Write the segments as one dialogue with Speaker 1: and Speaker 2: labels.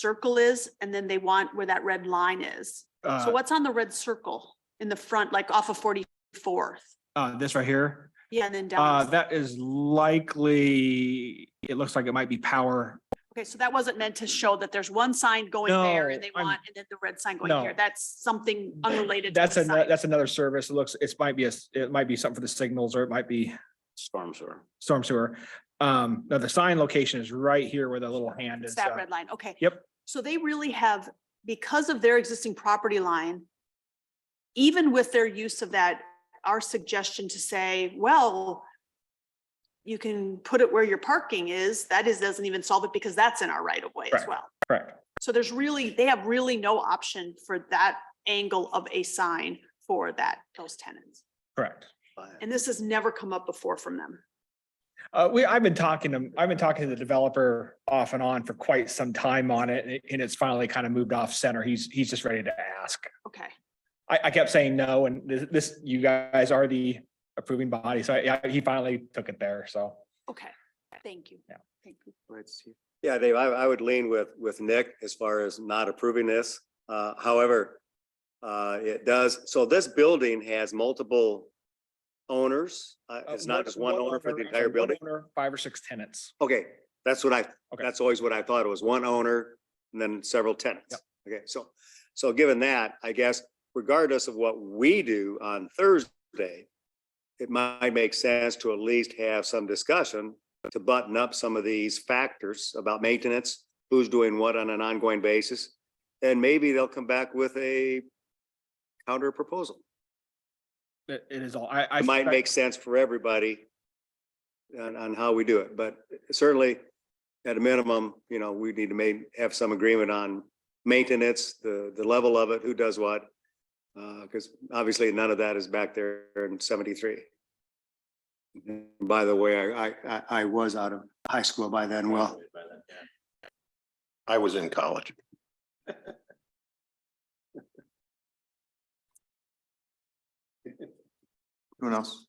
Speaker 1: circle is, and then they want where that red line is. So
Speaker 2: Uh,
Speaker 1: what's on the red circle in the front, like off of forty-fourth?
Speaker 2: uh, this right here,
Speaker 1: Yeah, and then
Speaker 2: uh,
Speaker 1: down.
Speaker 2: that is likely, it looks like it might be power.
Speaker 1: Okay, so that wasn't meant to show that there's one sign going there and
Speaker 2: No,
Speaker 1: they
Speaker 2: I'm-
Speaker 1: want, and then the red sign going here.
Speaker 2: No.
Speaker 1: That's something unrelated. to
Speaker 2: That's
Speaker 1: the
Speaker 2: a,
Speaker 1: sign.
Speaker 2: that's another service. It looks, it's might be a, s- it might be something for the signals or it might be
Speaker 3: storm sewer.
Speaker 2: storm sewer. Um, now the sign location is right here where the little hand
Speaker 1: It's
Speaker 2: is.
Speaker 1: that
Speaker 2: uh,
Speaker 1: red line, okay.
Speaker 2: Yep.
Speaker 1: So they really have, because of their existing property line, even with their use of that, our suggestion to say, well, you can put it where your parking is, that is, doesn't even solve it because that's in our right of way as
Speaker 2: Correct.
Speaker 1: well.
Speaker 2: Correct.
Speaker 1: So there's really, they have really no option for that angle of a sign for that, those tenants.
Speaker 2: Correct.
Speaker 1: And this has never come up before from them.
Speaker 2: Uh, we, I've been talking to, I've been talking to the developer off and on for quite some time on it, and it- and it's finally kind of moved off center. He's, he's just ready to ask.
Speaker 1: Okay,
Speaker 2: I, I kept saying no, and this, this, you guys are the approving body, so I- I, he finally took it there, so.
Speaker 1: okay, thank you.
Speaker 2: Yeah.
Speaker 1: Thank you.
Speaker 4: Yeah, Dave, I, I would lean with, with Nick as far as not approving this. Uh, however, uh, it does, so this building has multiple owners. Uh, it's not just one owner for the entire
Speaker 2: One
Speaker 4: building.
Speaker 2: owner, Five or six tenants.
Speaker 4: Okay, that's what I,
Speaker 2: Okay.
Speaker 4: that's always what I thought. It was one owner and then several tenants. Okay, so, so given that, I guess regardless of what we do on Thursday, it might make sense to at least have some discussion to button up some of these factors about maintenance, who's doing what on an ongoing basis. And maybe they'll come back with a counter proposal.
Speaker 2: It, it is all, I, I.
Speaker 4: It might
Speaker 2: suspect-
Speaker 4: make sense for everybody on, on how we do it, but certainly at a minimum, you know, we need to may have some agreement on maintenance, the, the level of it, who does what. Uh, because obviously none of that is back there in seventy-three. By the way, I, I, I was out of high school by then. Well,
Speaker 3: I was in college.
Speaker 4: who knows?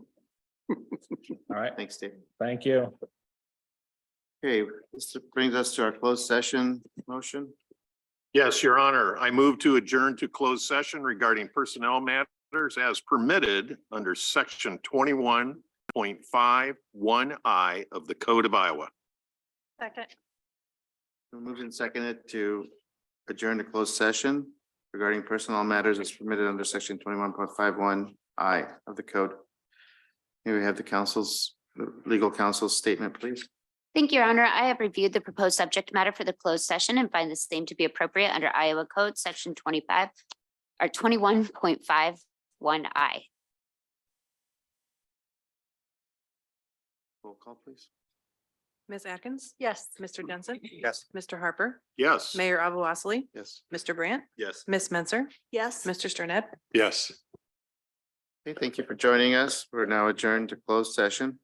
Speaker 2: All right,
Speaker 5: Thanks, Dave.
Speaker 2: thank you.
Speaker 5: Okay, this brings us to our closed session motion.
Speaker 3: Yes, your honor, I move to adjourn to closed session regarding personnel matters as permitted under section twenty-one point five one I of the Code of Iowa.
Speaker 1: Second.
Speaker 5: Been Moved and seconded to adjourn to closed session regarding personnel matters as permitted under section twenty-one point five one I of the code. Here we have the council's, the legal counsel's statement, please.
Speaker 6: Thank you, Your Honor. I have reviewed the proposed subject matter for the closed session and find the same to be appropriate under Iowa Code, Section twenty-five or twenty-one point five one I.
Speaker 5: Roll call, please.
Speaker 7: Ms. Atkins? Yes. Mr. Jensen?
Speaker 5: Yes.
Speaker 7: Mr. Harper?
Speaker 3: Yes.
Speaker 7: Mayor Abou Osley?
Speaker 5: Yes.
Speaker 7: Mr. Brandt?
Speaker 3: Yes.
Speaker 7: Ms. Menzer?
Speaker 1: Yes.
Speaker 7: Mr. Sterned?
Speaker 3: Yes.
Speaker 5: Okay, thank you for joining us. We're now adjourned to closed session.